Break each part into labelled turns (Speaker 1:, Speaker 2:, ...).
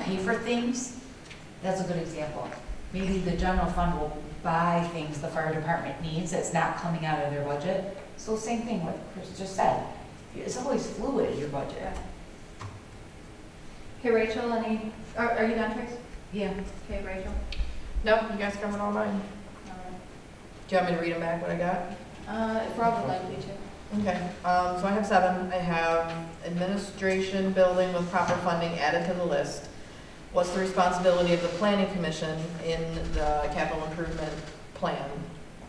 Speaker 1: pay for things, that's a good example. Maybe the general fund will buy things the fire department needs that's not coming out of their budget. So same thing what Chris just said, it's always fluid, your budget.
Speaker 2: Hey, Rachel, any, are, are you done, Trace?
Speaker 1: Yeah.
Speaker 2: Hey, Rachel?
Speaker 3: No, you guys covered all mine. Do you want me to read them back, what I got?
Speaker 2: Uh, if Rob would like me to.
Speaker 3: Okay, um, so I have seven. I have administration building with proper funding added to the list. What's the responsibility of the planning commission in the capital improvement plan?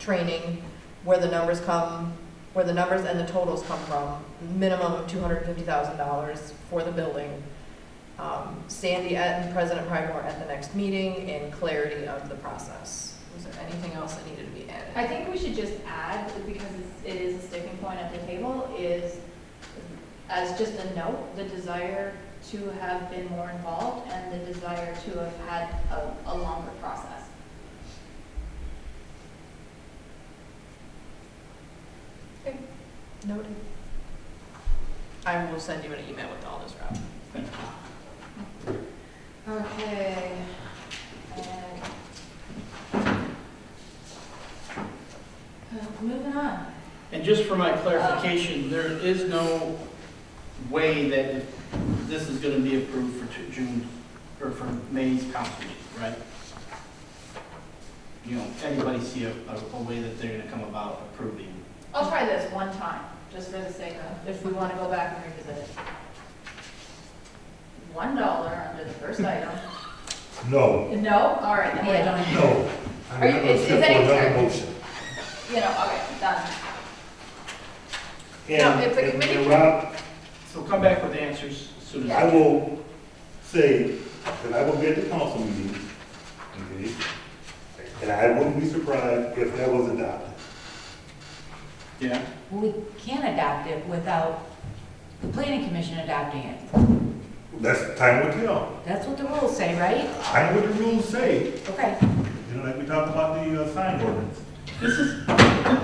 Speaker 3: Training, where the numbers come, where the numbers and the totals come from, minimum of two hundred and fifty thousand dollars for the building. Um, Sandy and President Pridemore at the next meeting and clarity of the process. Was there anything else that needed to be added?
Speaker 2: I think we should just add, because it's- it is a sticking point at the table, is as just a note, the desire to have been more involved and the desire to have had a, a longer process.
Speaker 3: Noted. I will send you an email with all this, Rob. Okay.
Speaker 2: And- Uh, Moving on.
Speaker 4: And just for my clarification, there is no way that this is going to be approved for two- June, or for May's council meeting, right? You know, anybody see a, a- a way that they're going to come about approving?
Speaker 2: I'll try this one time, just for the sake of, if we want to go back and revisit it. One dollar under the first item.
Speaker 5: No,
Speaker 2: No? All right, then we're
Speaker 1: Yeah.
Speaker 2: done.
Speaker 5: no. I'm
Speaker 2: Are you-
Speaker 5: not
Speaker 2: is-
Speaker 5: gonna
Speaker 2: is
Speaker 5: step
Speaker 2: that
Speaker 5: for another
Speaker 2: exact-
Speaker 5: motion.
Speaker 2: You know, okay, done.
Speaker 5: And-
Speaker 3: if the
Speaker 5: and-
Speaker 3: committee-
Speaker 5: And Rob,
Speaker 4: So come back with answers as soon
Speaker 5: I
Speaker 4: as.
Speaker 5: will say that I will be at the council meeting, okay? And I wouldn't be surprised if that was adopted.
Speaker 4: Yeah,
Speaker 1: We can adopt it without the planning commission adopting it.
Speaker 5: That's time will tell.
Speaker 1: That's what the rules say, right?
Speaker 5: I know what the rules say,
Speaker 1: Okay.
Speaker 5: you know, like we talked about the uh, sign ordinance.
Speaker 4: this is,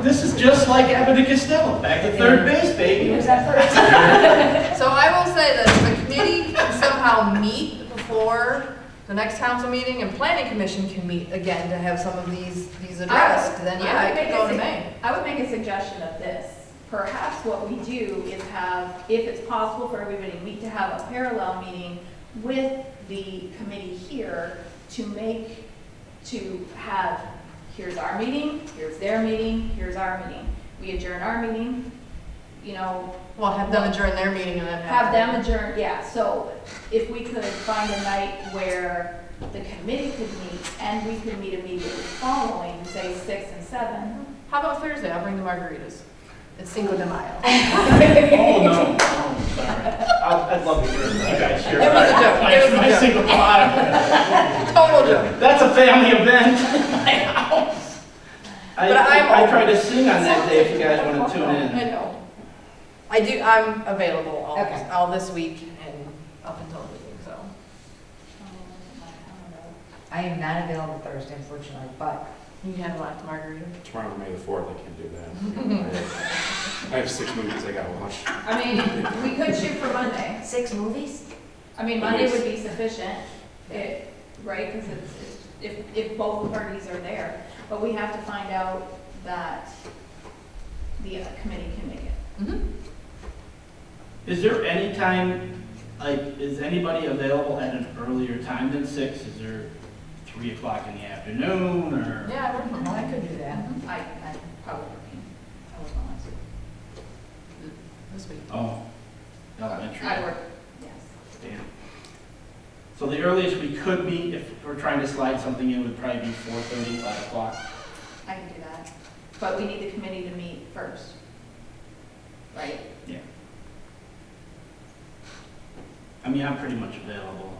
Speaker 4: this is just like Abbott and Costello, back to third base, baby.
Speaker 1: Who's that first?
Speaker 3: So I will say that if the committee can somehow meet before the next council meeting and planning commission can meet again to have some of these, these addressed, then yeah,
Speaker 2: I
Speaker 3: I
Speaker 2: would
Speaker 3: could
Speaker 2: make
Speaker 3: go
Speaker 2: a
Speaker 3: to
Speaker 2: sug-
Speaker 3: May.
Speaker 2: I would make a suggestion of this. Perhaps what we do is have, if it's possible for everybody, we to have a parallel meeting with the committee here to make, to have, here's our meeting, here's their meeting, here's our meeting. We adjourn our meeting, you know,
Speaker 3: Well, have them adjourn their meeting and then
Speaker 2: Have them adjourn, yeah, so if we could find a night where the committee could meet and we could meet immediately following, say six and seven.
Speaker 3: How about Thursday? I'll bring the margaritas. It's Cinco de Mayo. It
Speaker 4: Oh, no, oh, sorry. I'd I'd love to hear from you guys here.
Speaker 3: was a joke.
Speaker 4: My-
Speaker 3: It
Speaker 4: my
Speaker 3: was a joke.
Speaker 4: single bottom.
Speaker 3: Total joke.
Speaker 4: That's a family event. I,
Speaker 3: But I'm
Speaker 4: I
Speaker 3: open.
Speaker 4: tried to sing on that day if you guys want to tune in.
Speaker 2: know.
Speaker 3: I do, I'm available all,
Speaker 1: Okay.
Speaker 3: all this week and up until the meeting, so.
Speaker 1: I am not available Thursday unfortunately, but
Speaker 3: You can have a last margarita.
Speaker 6: Tomorrow, May the fourth, I can't do that. I have six movies I gotta watch.
Speaker 2: I mean, we could shoot for Monday.
Speaker 1: six movies?
Speaker 2: I mean, Monday would be sufficient, it, right, because it's, it's- if, if both parties are there. But we have to find out that the uh, committee can make it.
Speaker 4: Is there any time, like, is anybody available at an earlier time than six? Is there three o'clock in the afternoon or?
Speaker 3: Yeah, I wouldn't mind.
Speaker 1: could do that.
Speaker 2: I, I probably, I would want to.
Speaker 3: This week.
Speaker 4: Oh, elementary.
Speaker 2: I work, yes.
Speaker 4: Damn. So the earliest we could meet, if we're trying to slide something in, would probably be four thirty, five o'clock.
Speaker 2: I can do that. But we need the committee to meet first. Right?
Speaker 4: I mean, I'm pretty much available.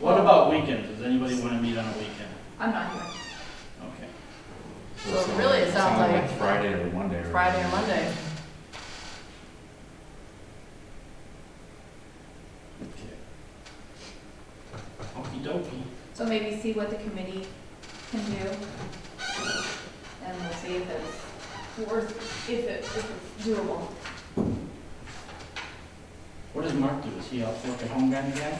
Speaker 4: What about weekends? Does anybody want to meet on a weekend?
Speaker 2: I'm not here.
Speaker 4: Okay.
Speaker 3: So it really, it sounds like-
Speaker 6: Friday or Monday. or-
Speaker 3: Friday or Monday.
Speaker 4: Okey dokey.
Speaker 2: So maybe see what the committee can do. And we'll see if it's worth, if it, if it's doable.
Speaker 4: What does Mark do? Is he out working home guy again?